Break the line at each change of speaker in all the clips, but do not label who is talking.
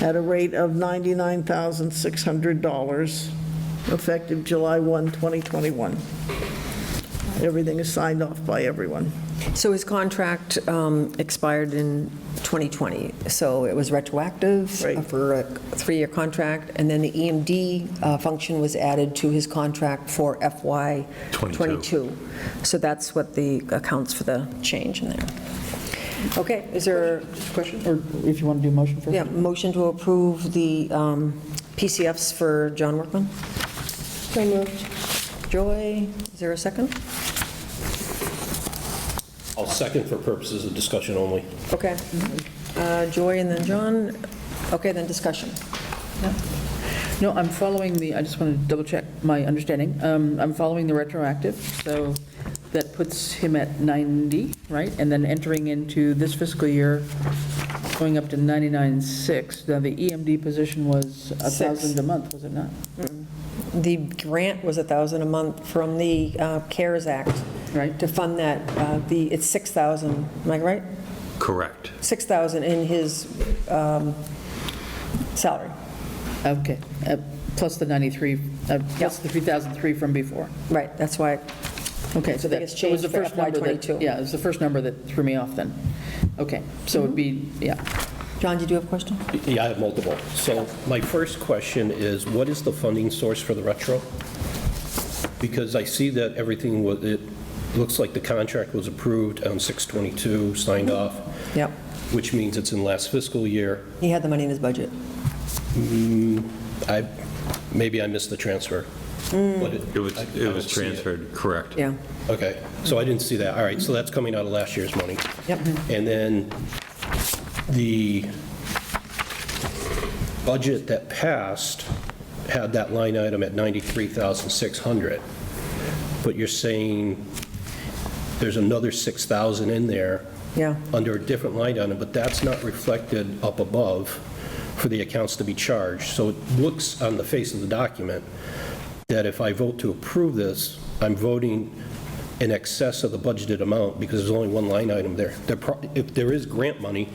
at a rate of $99,600, effective July 1, 2021. Everything is signed off by everyone.
So his contract um, expired in 2020, so it was retroactive
Right.
for a three-year contract, and then the EMD uh, function was added to his contract for FY '22. So that's what the, accounts for the change in there. Okay, is there,
Question, or if you want to do a motion first?
yeah, motion to approve the um, PCFs for John Workman? So moved. Joy, is there a second?
I'll second for purposes of discussion only.
Okay. Uh, Joy and then John. Okay, then discussion.
No, I'm following the, I just want to double check my understanding. Um, I'm following the retroactive, so that puts him at 90, right? And then entering into this fiscal year, going up to 99.6. Now, the EMD position was a
Six.
1,000 a month, was it not?
The grant was a 1,000 a month from the uh, CARES Act.
Right.
To fund that, uh, the, it's 6,000, am I right?
Correct.
6,000 in his um, salary.
Okay, Uh, plus the 93, uh, plus the 3,003 from before.
Right, that's why,
Okay, so that
biggest
so it was the
change for
first number that,
FY22.
yeah, it was the first number that threw me off then. Okay, so it'd be, yeah,
John, did you have a question?
Yeah, I have multiple. So my first question is, what is the funding source for the retro? Because I see that everything, wa- it looks like the contract was approved on 622, signed off,
Yep,
which means it's in last fiscal year.
he had the money in his budget.
I, maybe I missed the transfer. But
It was,
I- I
it
don't
was
see it.
transferred, correct.
Yeah,
Okay, so I didn't see that. All right, so that's coming out of last year's money.
yep.
And then the budget that passed had that line item at 93,600. But you're saying there's another 6,000 in there.
Yeah.
Under a different line item, but that's not reflected up above for the accounts to be charged. So it looks on the face of the document that if I vote to approve this, I'm voting in excess of the budgeted amount because there's only one line item there. There pro- If there is grant money,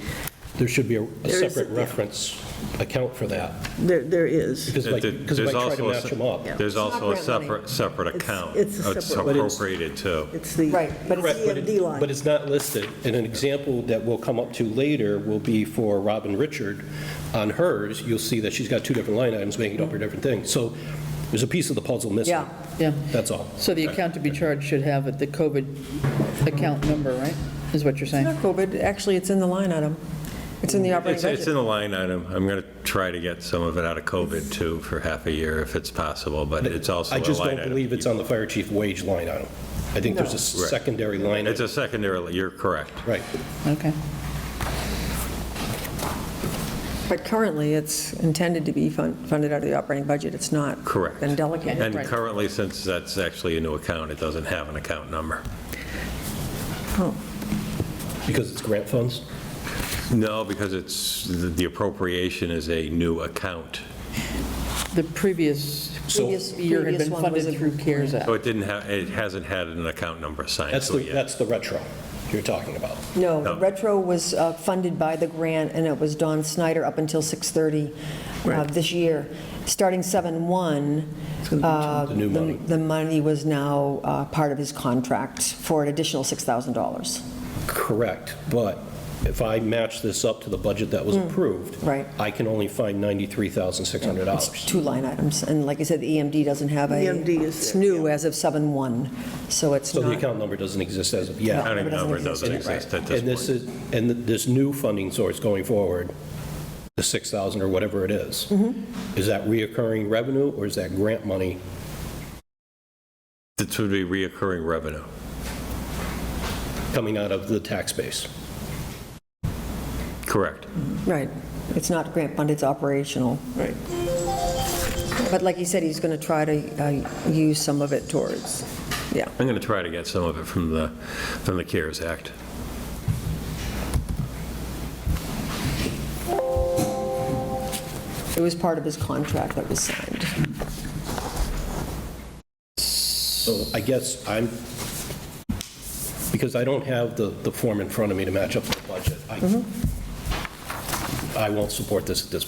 there should be a- a
is,
separate
yeah.
reference account for that.
There, there is.
Because if I- because if
There's
I try to
also a
match
se-
them up.
There's
It's not
also a
grant money.
separate, separate account. uh,
it's a separate- But
it's-
appropriated too.
It's the
Right, but it's-
Correct, but
EMD
it- But
line.
it's not listed. And an example that we'll come up to later will be for Robin Richard. On hers, you'll see that she's got two different line items making up for different things. So there's a piece of the puzzle missing.
Yeah.
yeah.
That's all.
So the account to be charged should have the COVID account number, right? Is what you're saying?
Not COVID, actually, it's in the line item. It's in the operating
It's,
budget.
it's in the line item. I'm going to try to get some of it out of COVID too for half a year if it's possible, but it's also a
I
line
just
item.
don't believe it's on the fire chief wage line item. I think there's a
Right.
secondary line
It's
item.
a secondary, you're correct.
Right.
Okay.
But currently, it's intended to be fun- funded out of the operating budget. It's not.
Correct.
Been delegated.
And
Right.
currently, since that's actually a new account, it doesn't have an account number.
Because it's grant funds?
No, because it's, the the appropriation is a new account.
The previous
So
Previous-
year had
previous
been
one was
funded
a-
through CARES Act.
So it didn't have, it hasn't had an account number assigned
that's
to
the,
it yet.
that's the retro you're talking about.
No, the
No.
retro was uh, funded by the grant, and it was Don Snyder up until 6:30 uh,
Right.
this year. Starting 7/1, uh,
The new
the
money.
the money was now uh, part of his contract for an additional $6,000.
Correct, but if I match this up to the budget that was approved.
Mm. right.
I can only find
It's
$93,600.
two line items, and like I said, the EMD doesn't have a.
EMD E is
It's
there,
new as of 7/1, so it's
So
not.
the account number doesn't exist as of yet.
No, it
Accounting
doesn't
number
exist
doesn't
yet, right.
exist at
And
this
this
point.
is, and th- this new funding source going forward, the 6,000 or whatever it is,
Mm-hmm.
is that reoccurring revenue or is that grant money?
This would be reoccurring revenue.
coming out of the tax base.
Correct.
Right. It's not grant funded, it's operational.
Right.
But like he said, he's going to try to uh, use some of it towards, yeah.
I'm going to try to get some of it from the, from the CARES Act.
It was part of his contract that was signed.
So I guess I'm, because I don't have the, the form in front of me to match up the budget, I, I won't support this at this